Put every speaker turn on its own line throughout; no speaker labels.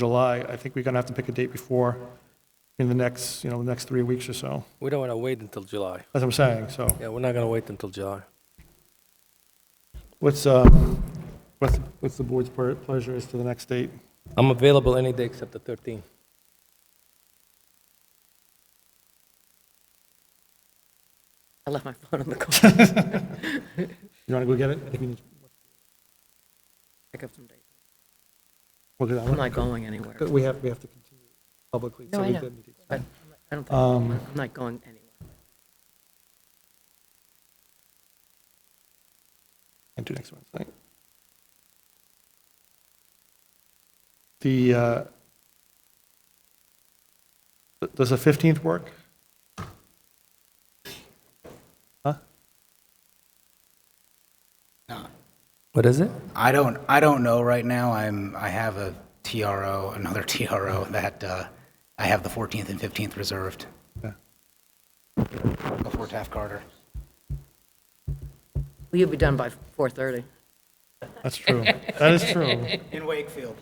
July, I think we're going to have to pick a date before, in the next, you know, the next three weeks or so.
We don't want to wait until July.
That's what I'm saying, so
Yeah, we're not going to wait until July.
what's, uh, what's, what's the board's ple- pleasure as to the next date?
I'm available any day except the 13th.
I left my phone on the car.
You want to go get it? I think we need to
Pick up some dates.
Look at that
I'm
one.
not going anywhere.
But We have, we have to continue publicly. so
No, I
we
know,
did need to
but
extend.
I don't think,
Um,
I'm not going anywhere.
And do next Wednesday. The, uh, th- does the 15th work? Huh?
What is it?
I don't, I don't know right now. I'm, I have a TRO, another TRO that, uh, I have the 14th and 15th reserved
Yeah.
before Taft Carter.
Well, you'll be done by 4:30.
That's true. That is true.
In Wakefield.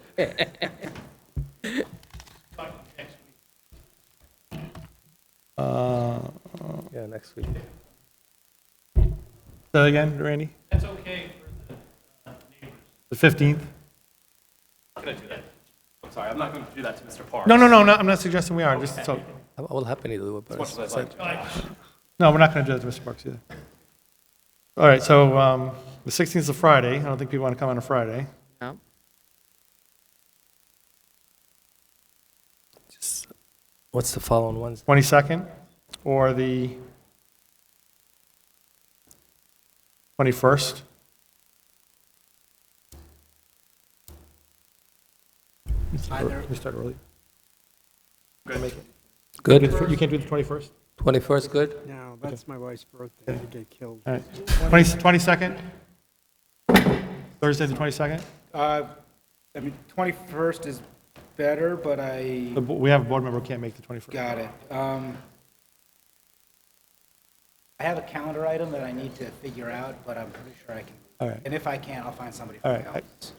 Uh,
Yeah, next week.
Say that again, Randy? That's okay for the uh, neighbors. The 15th?
I'm Oh, sorry, I'm not going to do that to Mr. Parks.
No, no, no, no, I'm not suggesting we are, just so,
I I will happily do it, but
Much
it's-
as I'd like to.
no, we're not going to do that to Mr. Parks either. All right, so um, the 16th is a Friday. I don't think people want to come on a Friday.
No?
just- what's the following Wednesday?
22nd or the 21st? We start ear- We start early. We'll make it. You
Good?
can't do the- You can't do the 21st?
21st, good?
No, that's my wife's birthday. I get killed.
All right. 20 22nd? Thursday, the 22nd?
Uh, I mean, 21st is better, but I
The bo- We have a board member who can't make the 21st.
Got it. Um, I have a calendar item that I need to figure out, but I'm pretty sure I can.
All right.
And if I can't, I'll find somebody
All
from
right,
the
I-
office.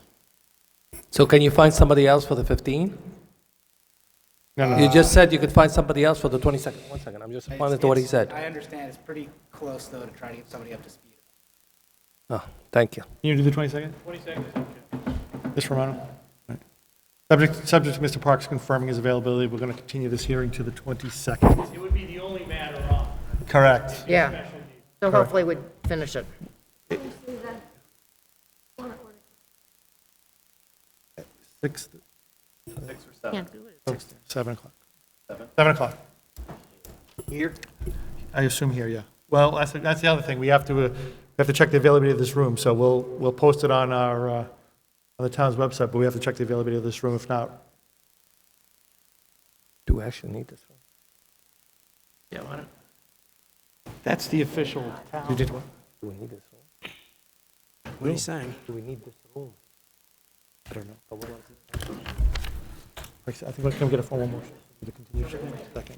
So can you find somebody else for the 15th?
No, no,
You just said you could find somebody else for the 22nd. One second, I'm just responding to what he
It's-
said.
I understand. It's pretty close, though, to try to get somebody up to speed.
Oh, thank you.
Can you do the 22nd? 22nd. Ms. Romano? All right. Subject, subject to Mr. Parks confirming his availability, we're going to continue this hearing to the 22nd.
It would be the only matter on.
Correct.
Yeah. So hopefully we finish it.
Six, oh,
Can't do it.
seven o'clock. Seven o'clock.
Here?
I assume here, yeah. Well, that's, that's the other thing. We have to, uh, we have to check the availability of this room. So we'll, we'll post it on our, uh, on the town's website, but we have to check the availability of this room. If not,
Do we actually need this one?
That's the official
you did what?
Do we need this room?
What are you saying?
Do we need this room?
I don't know. I think we'll come get a formal motion for the continuation in a second.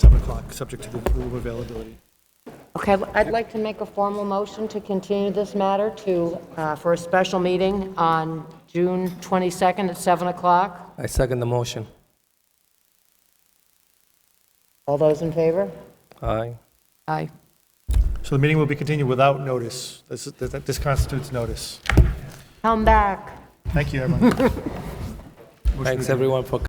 Seven o'clock, subject to the room availability.
Okay, I'd like to make a formal motion to continue this matter to, uh, for a special meeting on June 22nd at 7 o'clock.
I second the motion.
All those in favor?
Aye.
Aye.
So the meeting will be continued without notice. This, this this constitutes notice.
Come back.
Thank you, everyone.
Thanks, everyone, for